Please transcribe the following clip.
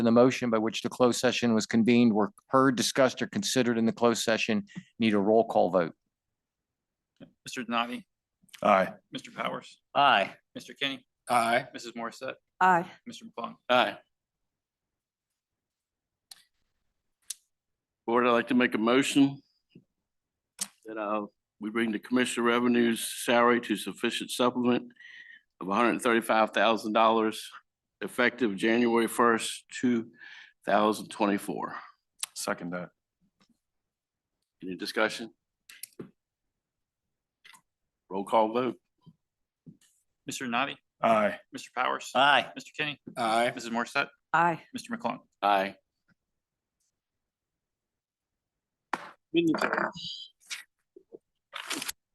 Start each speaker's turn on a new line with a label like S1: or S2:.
S1: and the motion by which the closed session was convened were heard, discussed, or considered in the closed session. Need a roll call vote.
S2: Mr. Denavi,
S3: Aye.
S2: Mr. Powers,
S4: Aye.
S2: Mr. Kenny,
S3: Aye.
S2: Mrs. Morissette,
S5: Aye.
S2: Mr. McClung.
S4: Aye.
S6: Board, I'd like to make a motion that uh, we bring the commissioner revenues salary to sufficient supplement of hundred and thirty-five thousand dollars effective January first, two thousand twenty-four.
S3: Second that.
S6: Any discussion? Roll call vote.
S2: Mr. Denavi,
S3: Aye.
S2: Mr. Powers,
S4: Aye.
S2: Mr. Kenny,
S3: Aye.
S2: Mrs. Morissette,
S5: Aye.
S2: Mr. McClung.
S6: Aye.